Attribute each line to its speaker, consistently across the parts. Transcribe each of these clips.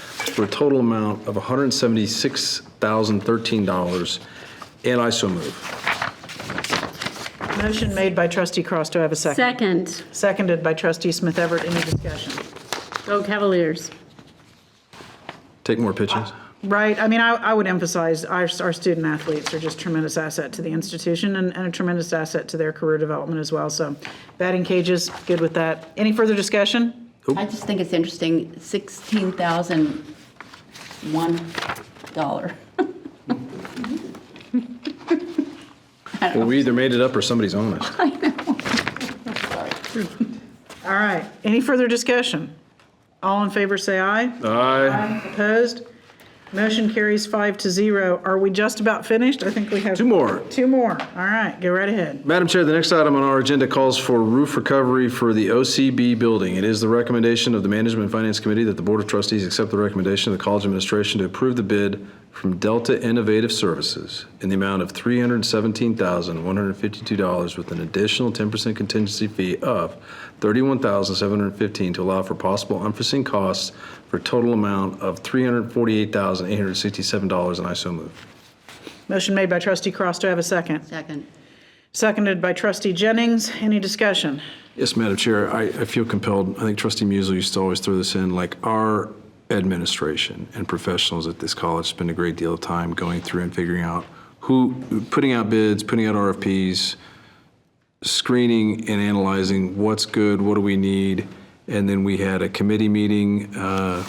Speaker 1: for a total amount of $176,013, and I so move.
Speaker 2: Motion made by trustee Cross. Do I have a second?
Speaker 3: Second,
Speaker 2: Seconded by trustee Smith Everett. Any discussion?
Speaker 3: go Oh, Cavaliers.
Speaker 1: Take more pitches.
Speaker 2: Right, I mean, I, I would emphasize, our, our student athletes are just tremendous asset to the institution and, and a tremendous asset to their career development as well, so batting cages, good with that. Any further discussion?
Speaker 4: I just think it's interesting, sixteen thousand one dollar.
Speaker 1: Well, we either made it up or somebody's honest.
Speaker 2: All right, any further discussion? All in favor, say aye.
Speaker 1: Aye.
Speaker 2: Opposed? Motion carries five to zero. Are we just about finished? I think we have.
Speaker 1: Two more.
Speaker 2: Two more, all right, go right ahead.
Speaker 1: Madam Chair, the next item on our agenda calls for roof recovery for the OCB building. It is the recommendation of the Management and Finance Committee that the Board of Trustees accept the recommendation of the College Administration to approve the bid from Delta Innovative Services in the amount of $317,152 with an additional 10% contingency fee of $31,715 to allow for possible unforeseen costs for a total amount of $348,867, and I so move.
Speaker 2: Motion made by trustee Cross, do I have a second?
Speaker 4: Second.
Speaker 2: Seconded by trustee Jennings, any discussion?
Speaker 1: Yes, Madam Chair, I, I feel compelled, I think trustee Musil used to always throw this in, like, our administration and professionals at this college spend a great deal of time going through and figuring out who, putting out bids, putting out RFPs, screening and analyzing what's good, what do we need, and then we had a committee meeting uh,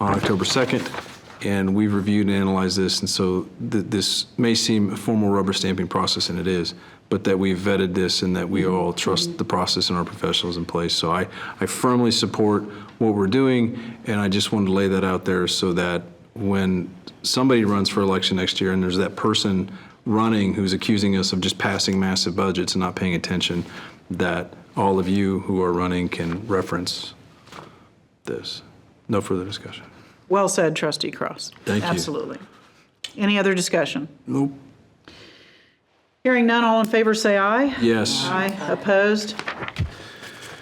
Speaker 1: on October 2nd, and we've reviewed and analyzed this, and so th- this may seem a formal rubber stamping process, and it is, but that we've vetted this and that we all trust the process and our professionals in place. So I, I firmly support what we're doing, and I just wanted to lay that out there so that when somebody runs for election next year and there's that person running who's accusing us of just passing massive budgets and not paying attention, that all of you who are running can reference this. No further discussion.
Speaker 2: Well said, trustee Cross.
Speaker 1: Thank you.
Speaker 2: Absolutely. Any other discussion?
Speaker 1: Nope.
Speaker 2: Hearing none, all in favor, say aye.
Speaker 1: Yes.
Speaker 2: Aye, opposed?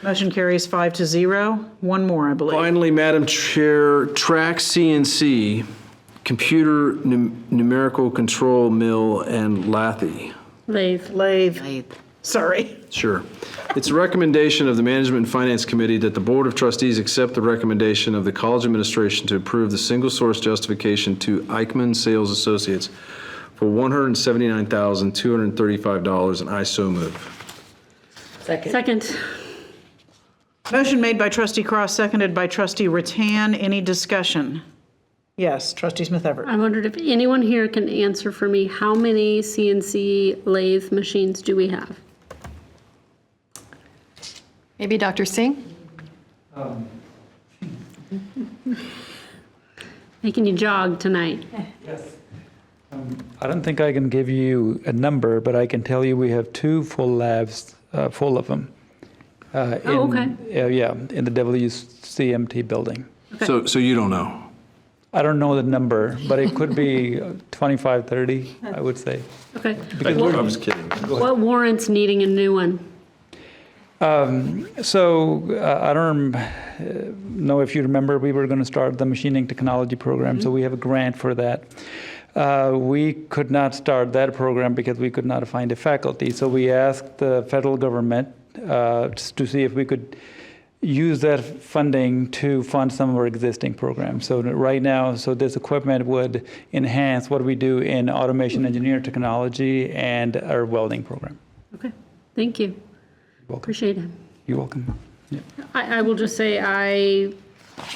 Speaker 2: Motion carries five to zero. One more, I believe.
Speaker 1: Finally, Madam Chair, Track CNC, Computer Num- Numerical Control Mill and Lathy.
Speaker 3: Leave.
Speaker 2: Lave,
Speaker 4: Eighth.
Speaker 2: sorry.
Speaker 1: Sure. It's a recommendation of the Management and Finance Committee that the Board of Trustees accept the recommendation of the College Administration to approve the single-source justification to Eichmann Sales Associates for $179,235, and I so move.
Speaker 3: Second,
Speaker 2: Motion made by trustee Cross, seconded by trustee Ratan. Any discussion? Yes, trustee Smith Everett.
Speaker 3: I wondered if anyone here can answer for me, how many CNC lathe machines do we have?
Speaker 5: Maybe Dr. Singh?
Speaker 3: Making you jog tonight.
Speaker 6: Um, I don't think I can give you a number, but I can tell you we have two full labs, uh, full of them. Uh,
Speaker 3: Oh,
Speaker 6: in- uh, yeah, in the WCMT building.
Speaker 1: So, so you don't know?
Speaker 6: I don't know the number, but it could be uh, 25, 30, I would say.
Speaker 3: Okay.
Speaker 1: I was kidding.
Speaker 3: What warrants needing a new one?
Speaker 6: So uh, I don't rem- uh, know if you remember, we were going to start the machining technology program, so we have a grant for that. Uh, we could not start that program because we could not find a faculty. So we asked the federal government uh, s- to see if we could use that funding to fund some of our existing programs. So that right now, so this equipment would enhance what we do in automation engineer technology and our welding program.
Speaker 3: Okay, thank you.
Speaker 6: Welcome.
Speaker 3: Appreciate it.
Speaker 6: You're welcome. Yeah.
Speaker 3: I, I will just say I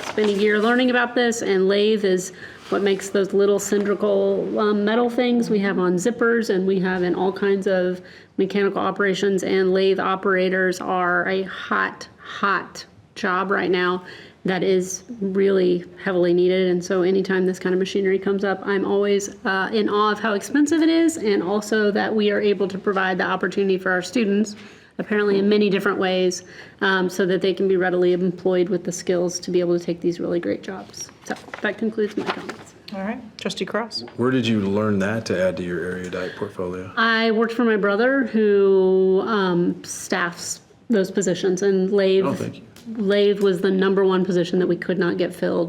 Speaker 3: spent a year learning about this, and lathe is what makes those little cylindrical um, metal things we have on zippers and we have in all kinds of mechanical operations. And lathe operators are a hot, hot job right now that is really heavily needed. And so, anytime this kind of machinery comes up, I'm always uh, in awe of how expensive it is, and also that we are able to provide the opportunity for our students apparently in many different ways, um, so that they can be readily employed with the skills to be able to take these really great jobs. So that concludes my comments.
Speaker 2: All right, trustee Cross.
Speaker 1: Where did you learn that to add to your erudite portfolio?
Speaker 3: I worked for my brother who um, staffs those positions, and lathe
Speaker 1: Oh, thank you.
Speaker 3: lathe was the number one position that we could not get filled